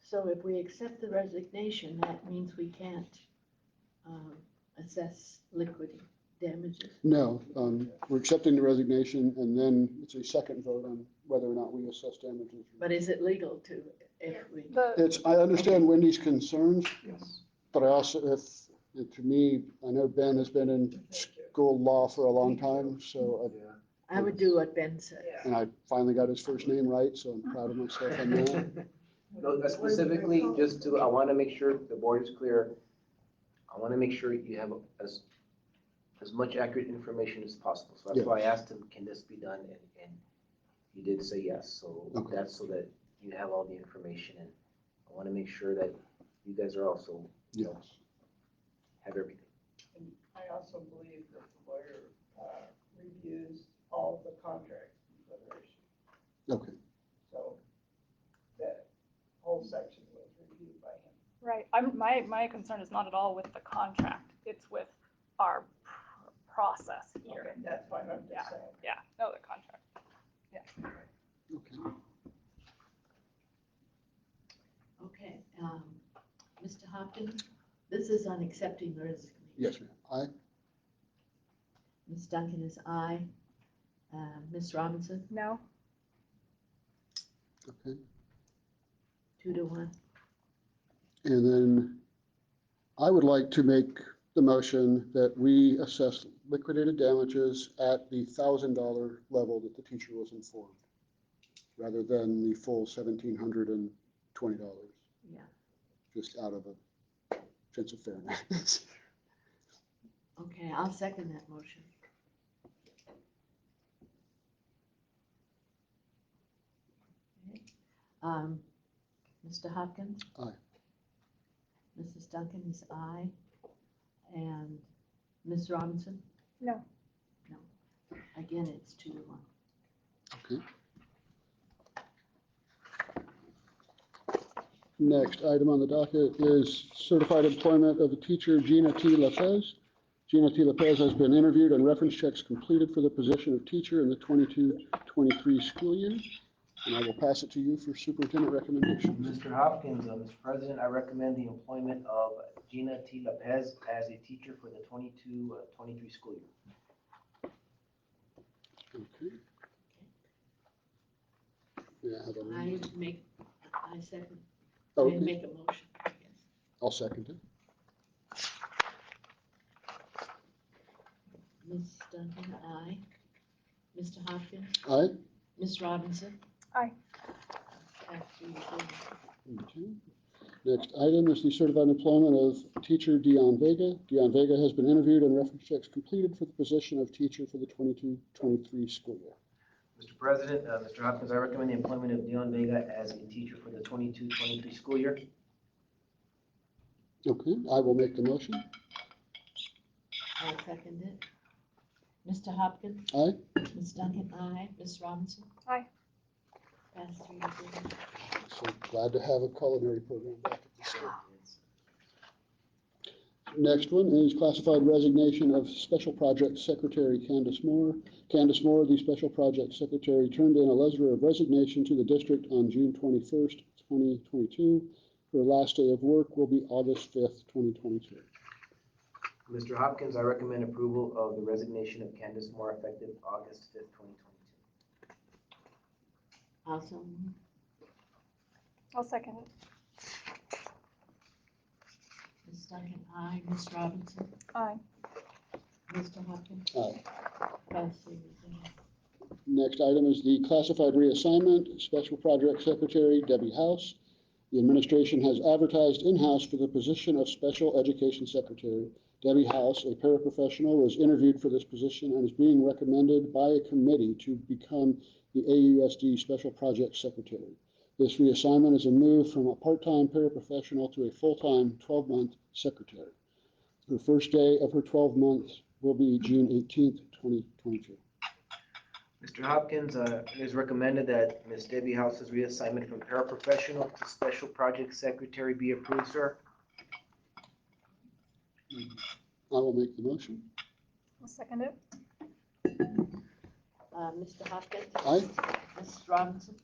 So if we accept the resignation, that means we can't um, assess liquid damages. No, um, we're accepting the resignation and then it's a second vote on whether or not we assess damages. But is it legal to, if we, The, It's, I understand Wendy's concerns, Yes. but I also, if, to me, I know Ben has been in school law for a long time, so, I would do what Ben said. I- and I finally got his first name right, so I'm proud of myself on that. No, uh, specifically, just to, I want to make sure the board is clear. I want to make sure you have as, as much accurate information as possible. So that's why I asked him, can this be done? And, and he did say yes. So Okay. that's so that you have all the information and I want to make sure that you guys are also, Yes. have everything. I also believe that the lawyer uh, reviews all the contracts in Federation, Okay, so that whole section was reviewed by him. right, I'm, my, my concern is not at all with the contract, it's with our pr- process here. Okay, That's fine, I'm just saying. Yeah, no, the contract. okay. Okay, um, Mr. Hopkins, this is on accepting the resignation. Yes, ma'am. I, Ms. Duncan is aye. Uh, Ms. Robinson, No? okay. two to one. And then I would like to make the motion that we assess liquidated damages at the thousand dollar level that the teacher was informed, rather than the full seventeen hundred and twenty dollars, Yeah, just out of a sense of fairness. okay, I'll second that motion. Okay, Um, Mr. Hopkins? Aye. Mrs. Duncan is aye. And Ms. Robinson? No. No. Again, it's two to one. Next item on the docket is certified employment of the teacher Gina T. Lopez. Gina T. Lopez has been interviewed and reference checks completed for the position of teacher in the 22-23 school year. And I will pass it to you for superintendent recommendations. Mr. Hopkins, uh, Mr. President, I recommend the employment of Gina T. Lopez as a teacher for the 22, uh, 23 school year. Okay. May I have a- Oh, I make, I second, I Okay, make a motion, I guess. I'll second it. Ms. Duncan, aye. Mr. Hopkins? All right. Ms. Robinson? Aye. After you go. Okay. Next item is the certified employment of teacher Dion Vega. Dion Vega has been interviewed and reference checks completed for the position of teacher for the 22-23 school year. Mr. President, uh, Mr. Hopkins, I recommend the employment of Dion Vega as a teacher for the 22-23 school year. Okay, I will make the motion. I'll second it. Mr. Hopkins? Aye. Ms. Duncan, aye. Ms. Robinson? Aye. Pass three to zero. So glad to have a culinary program back. at the school. Next one is classified resignation of Special Projects Secretary Candace Moore. Candace Moore, the Special Projects Secretary, turned in a letter of resignation to the district on June 21st, 2022. Her last day of work will be August 5th, 2022. Mr. Hopkins, I recommend approval of the resignation of Candace Moore effective August fifth, twenty twenty-two. Also, moved. I'll second it. Ms. Duncan, aye. Ms. Robinson? Aye. Mr. Hopkins? Aye. Pass three to zero. Next item is the classified reassignment, Special Projects Secretary Debbie House. The administration has advertised in-house for the position of Special Education Secretary. Debbie House, a paraprofessional, was interviewed for this position and is being recommended by a committee to become the AUSD Special Projects Secretary. This reassignment is a move from a part-time paraprofessional to a full-time 12-month secretary. Her first day of her 12 months will be June 18th, 2022. Mr. Hopkins, uh, it is recommended that Ms. Debbie House's reassignment from paraprofessional to special project secretary be approved, sir. I will make the motion. I'll second it. Uh, Mr. Hopkins? Aye. Ms. Robinson?